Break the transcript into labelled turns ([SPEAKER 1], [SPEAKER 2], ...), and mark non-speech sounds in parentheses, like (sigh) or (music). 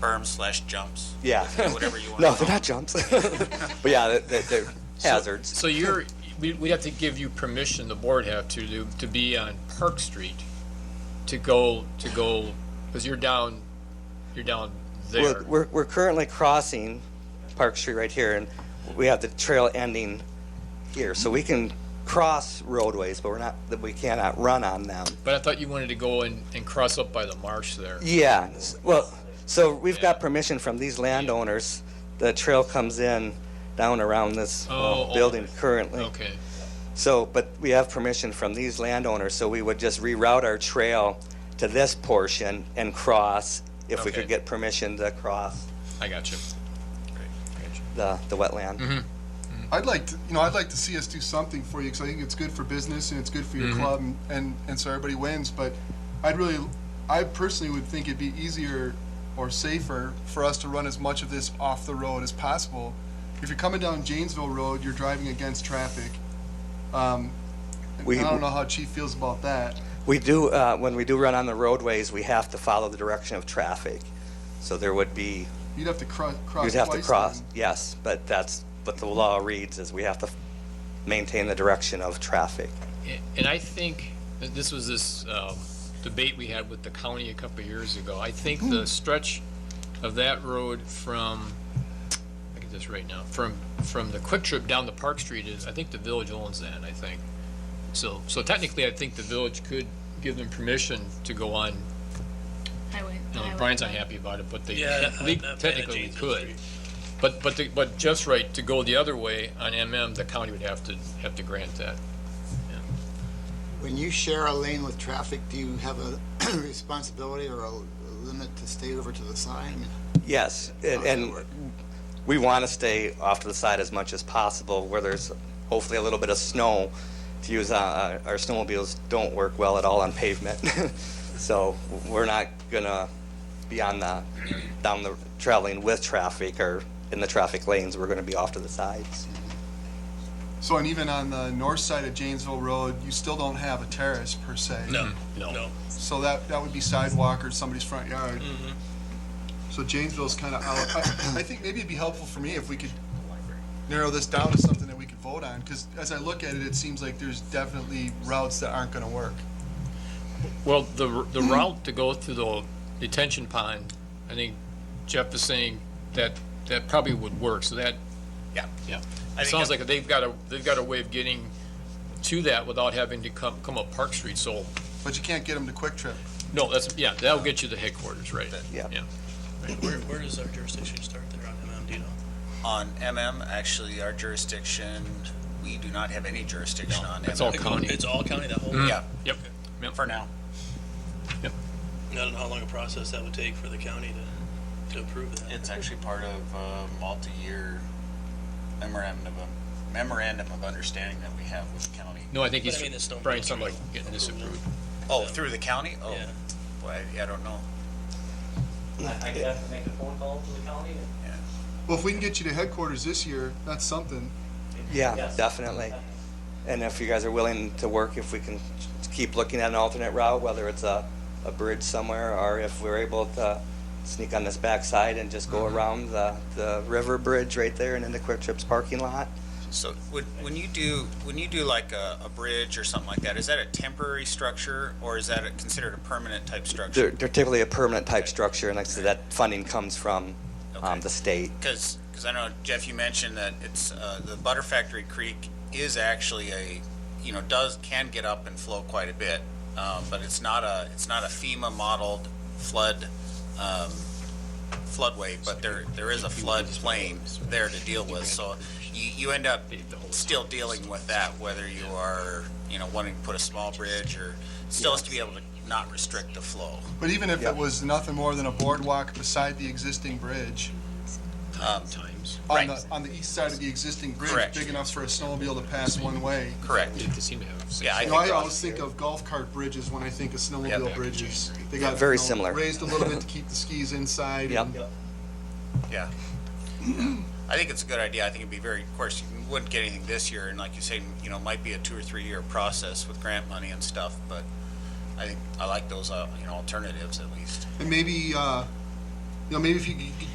[SPEAKER 1] berms slash jumps.
[SPEAKER 2] Yeah.
[SPEAKER 1] Whatever you want.
[SPEAKER 2] (laughs) No, they're not jumps. (laughs) but yeah, they're, they're- they're hazards.
[SPEAKER 3] So you're, we, we have to give you permission, the board have to, to, to be on Park Street, to go, to go, because you're down, you're down
[SPEAKER 2] We're,
[SPEAKER 3] there.
[SPEAKER 2] we're, we're currently crossing Park Street right here, and we have the trail ending here, so we can cross roadways, but we're not, that we cannot run on them.
[SPEAKER 3] But I thought you wanted to go and, and cross up by the marsh there.
[SPEAKER 2] Yeah, s- well, so we've got permission from these landowners. The trail comes in down around this uh,
[SPEAKER 3] Oh, oh.
[SPEAKER 2] building currently.
[SPEAKER 3] Okay,
[SPEAKER 2] So, but we have permission from these landowners, so we would just reroute our trail to this portion and cross if we
[SPEAKER 3] Okay.
[SPEAKER 2] could get permission to cross
[SPEAKER 3] I got you. Great, got you.
[SPEAKER 2] the, the wetland.
[SPEAKER 4] Mm-hmm. I'd like to, you know, I'd like to see us do something for you because I think it's good for business and it's good for your club and, and, and so everybody wins. But I'd really, I personally would think it'd be easier or safer for us to run as much of this off the road as possible. If you're coming down Janesville Road, you're driving against traffic. Um, and
[SPEAKER 2] We-
[SPEAKER 4] I don't know how Chief feels about that.
[SPEAKER 2] We do, uh, when we do run on the roadways, we have to follow the direction of traffic. So there would be,
[SPEAKER 4] You'd have to cro- cross.
[SPEAKER 2] you'd have to
[SPEAKER 4] twice
[SPEAKER 2] cross,
[SPEAKER 4] then.
[SPEAKER 2] yes, but that's what the law reads is we have to maintain the direction of traffic.
[SPEAKER 3] And I think that this was this um, debate we had with the county a couple of years ago. I think the stretch of that road from, I get this right now, from, from the Quick Trip down to Park Street is, I think the village owns that, I think. So, so technically, I think the village could give them permission to go on.
[SPEAKER 5] Highway.
[SPEAKER 3] Now,
[SPEAKER 5] highway
[SPEAKER 3] Brian's not
[SPEAKER 5] plan.
[SPEAKER 3] happy about it, but they
[SPEAKER 6] Yeah, I'm
[SPEAKER 3] they
[SPEAKER 6] not bad at
[SPEAKER 3] technically
[SPEAKER 6] James
[SPEAKER 3] could.
[SPEAKER 6] Street.
[SPEAKER 3] But, but, the- but Jeff's right, to go the other way on MM, the county would have to, have to grant that.
[SPEAKER 7] When you share a lane with traffic, do you have a (clears throat) responsibility or a limit to stay over to the side? I mean,
[SPEAKER 2] Yes, and, and we want to stay off to the side as much as possible where there's hopefully a little bit of snow to use. Uh, our snowmobiles don't work well at all on pavement, (laughs) so we're not gonna be on the down the traveling with traffic or in the traffic lanes. We're gonna be off to the sides.
[SPEAKER 4] So, and even on the north side of Janesville Road, you still don't have a terrace per se.
[SPEAKER 6] No,
[SPEAKER 3] No.
[SPEAKER 6] no.
[SPEAKER 4] So that, that would be sidewalk or somebody's front yard.
[SPEAKER 6] Mm-hmm.
[SPEAKER 4] So Janesville's kind of out. I, I think maybe it'd be helpful for me if we could narrow this down to something that we could vote on, because as I look at it, it seems like there's definitely routes that aren't gonna work.
[SPEAKER 3] Well, the, r- the
[SPEAKER 6] Hmm.
[SPEAKER 3] route to go through the detention pond, I think Jeff is saying that, that probably would work, so that.
[SPEAKER 6] Yeah.
[SPEAKER 3] Yeah.
[SPEAKER 6] I
[SPEAKER 3] It
[SPEAKER 6] think
[SPEAKER 3] sounds
[SPEAKER 6] that-
[SPEAKER 3] like they've got a, they've got a way of getting to that without having to come, come up Park Street, so,
[SPEAKER 4] But you can't get them to Quick Trip.
[SPEAKER 3] no, that's, yeah, that'll get you to headquarters, right?
[SPEAKER 2] Yeah.
[SPEAKER 3] Yeah.
[SPEAKER 6] Where, where does our jurisdiction start there on MM, do you know?
[SPEAKER 1] On MM, actually, our jurisdiction, we do not have any jurisdiction on
[SPEAKER 3] it's all
[SPEAKER 1] MM.
[SPEAKER 3] County.
[SPEAKER 6] It's all county, that whole,
[SPEAKER 1] Yeah,
[SPEAKER 3] Yep.
[SPEAKER 1] for now.
[SPEAKER 3] Mm-hmm.
[SPEAKER 6] I don't know how long a process that would take for the county to, to approve that.
[SPEAKER 8] It's actually part of a multi-year memorandum of, memorandum of understanding that we have with the county.
[SPEAKER 3] No, I think
[SPEAKER 6] But
[SPEAKER 3] he's,
[SPEAKER 6] I mean, it's no.
[SPEAKER 3] Brian's talking about getting this
[SPEAKER 6] approval.
[SPEAKER 3] approved.
[SPEAKER 1] Oh, through the county? Oh,
[SPEAKER 6] Yeah.
[SPEAKER 1] boy, I- I don't know.
[SPEAKER 9] I could have to make a phone call to the county and
[SPEAKER 4] Well, if we can get you to headquarters this year, that's something.
[SPEAKER 2] Yeah,
[SPEAKER 9] Yes.
[SPEAKER 2] definitely. And if you guys are willing to work, if we can keep looking at an alternate route, whether it's a, a bridge somewhere, or if we're able to sneak on this backside and just go around the, the river bridge right there and into Quick Trip's parking lot.
[SPEAKER 1] So would, when you do, when you do like a, a bridge or something like that, is that a temporary structure or is that a- considered a permanent type
[SPEAKER 2] They're,
[SPEAKER 1] structure?
[SPEAKER 2] they're typically a permanent type structure, and like I said, that funding comes from, um,
[SPEAKER 1] Okay.
[SPEAKER 2] the state.
[SPEAKER 1] Because, I know, Jeff, you mentioned that it's, uh, the Butter Factory Creek is actually a, you know, does, can get up and flow quite a bit, um, but it's not a, it's not a FEMA modeled flood, um, floodway, but there, there is a floodplain there to deal with, so you, you end up still dealing with that, whether you are, you know, wanting to put a small bridge or, still has to be able to not restrict the flow.
[SPEAKER 4] But even if
[SPEAKER 2] Yeah.
[SPEAKER 4] it was nothing more than a boardwalk beside the existing bridge,
[SPEAKER 1] Um,
[SPEAKER 3] Times.
[SPEAKER 4] on
[SPEAKER 1] Right.
[SPEAKER 4] the, on the east side of the existing bridge,
[SPEAKER 1] Correct.
[SPEAKER 4] big enough for a snowmobile to pass one way.
[SPEAKER 1] Correct,
[SPEAKER 3] They seem to have. six-
[SPEAKER 1] yeah.
[SPEAKER 4] You
[SPEAKER 1] I
[SPEAKER 4] know, I
[SPEAKER 1] think-
[SPEAKER 4] always think of golf cart bridges when I think of snowmobile
[SPEAKER 1] Yeah.
[SPEAKER 4] bridges. They got
[SPEAKER 2] Very
[SPEAKER 4] you know,
[SPEAKER 2] similar.
[SPEAKER 4] Raised a little bit to keep the skis inside.
[SPEAKER 2] Yep.
[SPEAKER 4] and-
[SPEAKER 1] Yeah. Yeah. I think it's a good idea. I think it'd be very, of course, you wouldn't get anything this year, and like you say, you know, might be a two or three year process with grant money and stuff, but I think, I like those, uh, you know, alternatives at least.
[SPEAKER 4] And maybe uh, know, maybe if you could